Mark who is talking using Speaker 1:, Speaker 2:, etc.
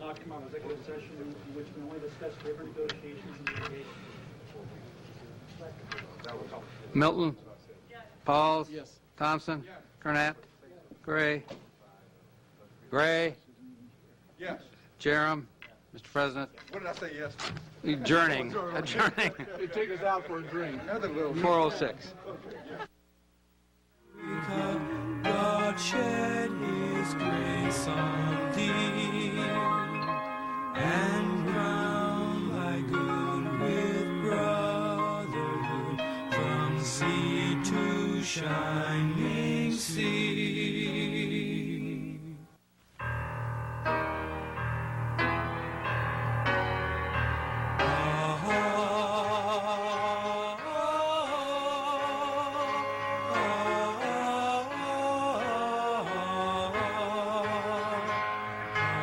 Speaker 1: come out of executive session in which we only discuss labor negotiations and litigation.
Speaker 2: Milton. Pauls. Thompson. Gurnett. Gray. Gray.
Speaker 3: Yes.
Speaker 2: Jerem. Mr. President,
Speaker 3: What did I say yes to?
Speaker 2: adjourning, adjourning,
Speaker 4: They take us out for a drink.
Speaker 3: Another little.
Speaker 2: 406.
Speaker 5: Ah, God shed his grace on thee and crown thy good with brotherhood from sea to shine. ah,